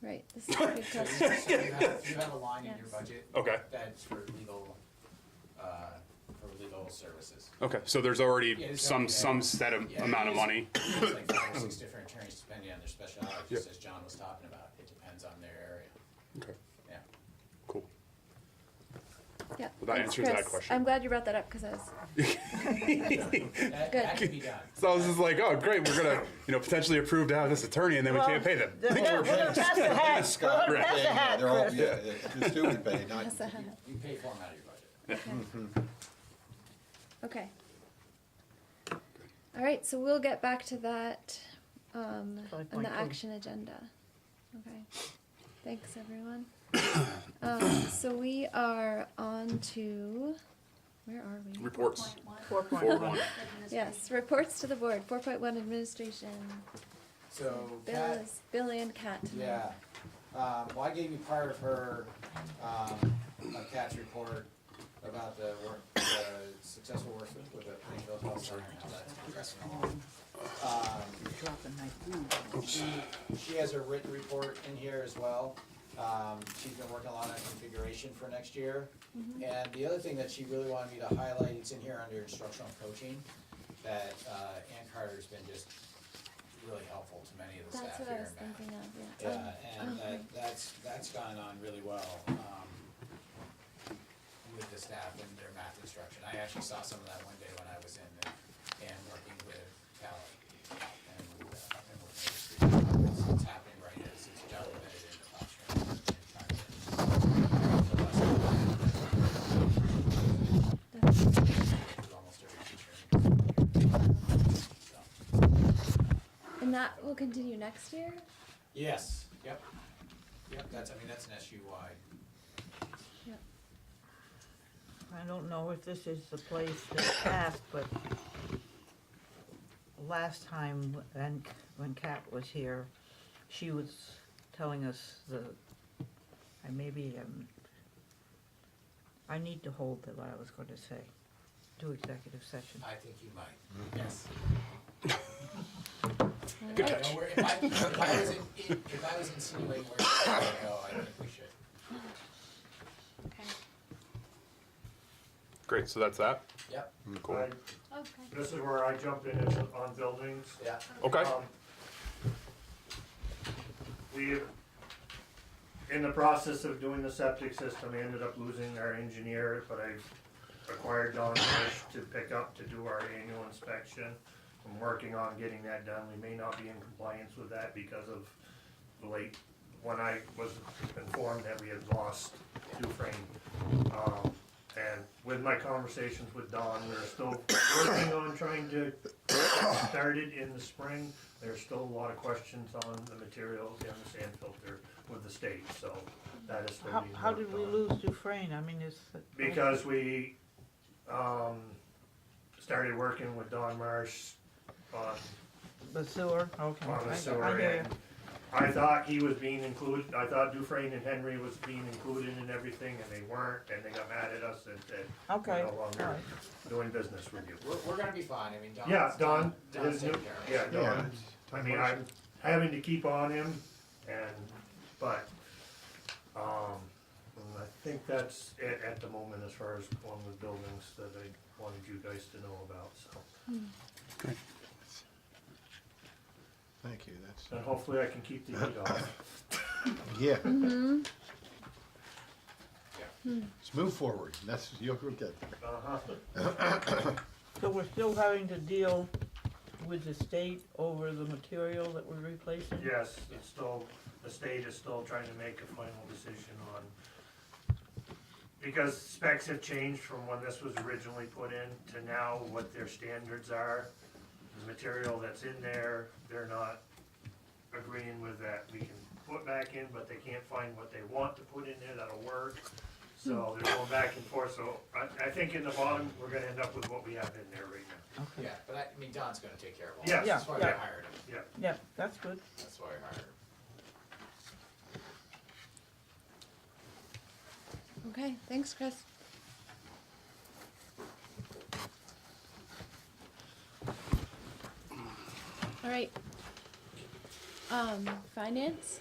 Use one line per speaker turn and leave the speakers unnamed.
Right, this is a good
So
question.
you have, you have a line in your
Yes.
budget
Okay,
that's for legal, uh, for legal services.
okay, so there's already
Yeah,
some,
so-
some set of
Yeah.
amount of money.
There's like five or six different attorneys depending on their specialty,
Yeah.
just as John was talking about. It depends on their area,
Okay,
yeah.
cool.
Yeah.
Well, that
thanks,
answers that
Chris.
question.
I'm glad you brought that up because I was,
That, that can be done.
So I was just like, oh, great, we're gonna, you know, potentially approve to have this attorney and then we can't pay them.
We're gonna pass the hat, we're
Scott,
gonna pass the
yeah, yeah,
hat,
they're all,
Chris.
yeah, the the student pay, not,
that's a-
You pay for them out of your budget.
okay. Okay. All right, so we'll get back to that um,
Five
on
point
the
two.
action agenda. Okay. Thanks, everyone. um, so we are on to, where are we?
Reports.
Four point
Four
one.
one.
Yes, reports to the board, 4.1 administration.
So
Bill
Kat-
is, Bill and Kat.
Yeah, um, well, I gave you part of her, um, of Kat's report about the work, the successful work with- with the Plainfield Health Center and how that's progressing along. Um, she, she has her written report in here as well. Um, she's been working a lot on configuration for next year.
Mm-hmm.
And the other thing that she really wanted me to highlight, it's in here under instructional coaching, that, uh, Ann Carter's been just really helpful to many of the
That's
staff here
what I was
in Bath.
thinking of, yeah.
Yeah,
Um,
and
okay.
that, that's, that's gone on really well, um, with the staff and their math instruction. I actually saw some of that one day when I was in and, and working with Cal and, uh, and working with students. It's- It's happening right as it's documented in the classroom.
That's-
Almost every teacher. So.
And that will continue next year?
Yes, yep, yep, that's, I mean, that's an SU-wide.
Yep.
I don't know if this is the place to ask, but last time when, when Kat was here, she was telling us the, I maybe, um, I need to hold to what I was gonna say, to executive session.
I think you might, yes.
All
I
right.
don't know where- If I, if I was, in- if I was insinuating where it's going to go, I think we should.
Great, so that's that.
Yep,
Cool.
I- This is where I jump in is on buildings.
yeah.
Okay,
Um, We, in the process of doing the septic system, I ended up losing our engineer, but I acquired Don Fish to pick up to do our annual inspection. I'm working on getting that done. We may not be in compliance with that because of the late, when I was informed that we had lost Dufrain. Um, and with my conversations with Don, we're still working on trying to started in the spring. There's still a lot of questions on the materials and the sand filter with the state, so that is still
How,
being
how did
worked
we
on.
lose Dufrain? I mean, it's.
Because we, um, started working with Don Marsh on,
The sewer, okay.
on
I-
the
I
sewer
hear ya.
end. I thought he was being included, I thought Dufrain and Henry was being included in everything, and they weren't, and they got mad at us and said,
Okay,
we're no longer
alright.
doing business with you.
We're, we're gonna be fine, I mean, Don.
Yeah, Don,
Don's
his new,
taking care of it.
yeah,
yeah.
Don, I mean, I'm having to keep on him and, but, um, I think that's it at the moment as far as one with buildings that I wanted you guys to know about, so.
thank you, that's,
And hopefully I can keep the heat off.
yeah. Let's move forward, that's, you'll get there.
Uh-huh.
So we're still having to deal with the state over the material that we're replacing?
Yes, it's still, the state is still trying to make a final decision on, because specs have changed from when this was originally put in to now what their standards are. The material that's in there, they're not agreeing with that. We can put back in, but they can't find what they want to put in there that'll work. So they're going back and forth, so I, I think in the bottom, we're gonna end up with what we have in there right now.
Okay,
Yeah, but I, I mean, Don's gonna take care of all
Yeah.
that, that's why we
Yeah, yeah.
hired him,
Yeah,
yeah, that's good.
that's why we hired him.
Okay, thanks, Chris. All right. Um, finance?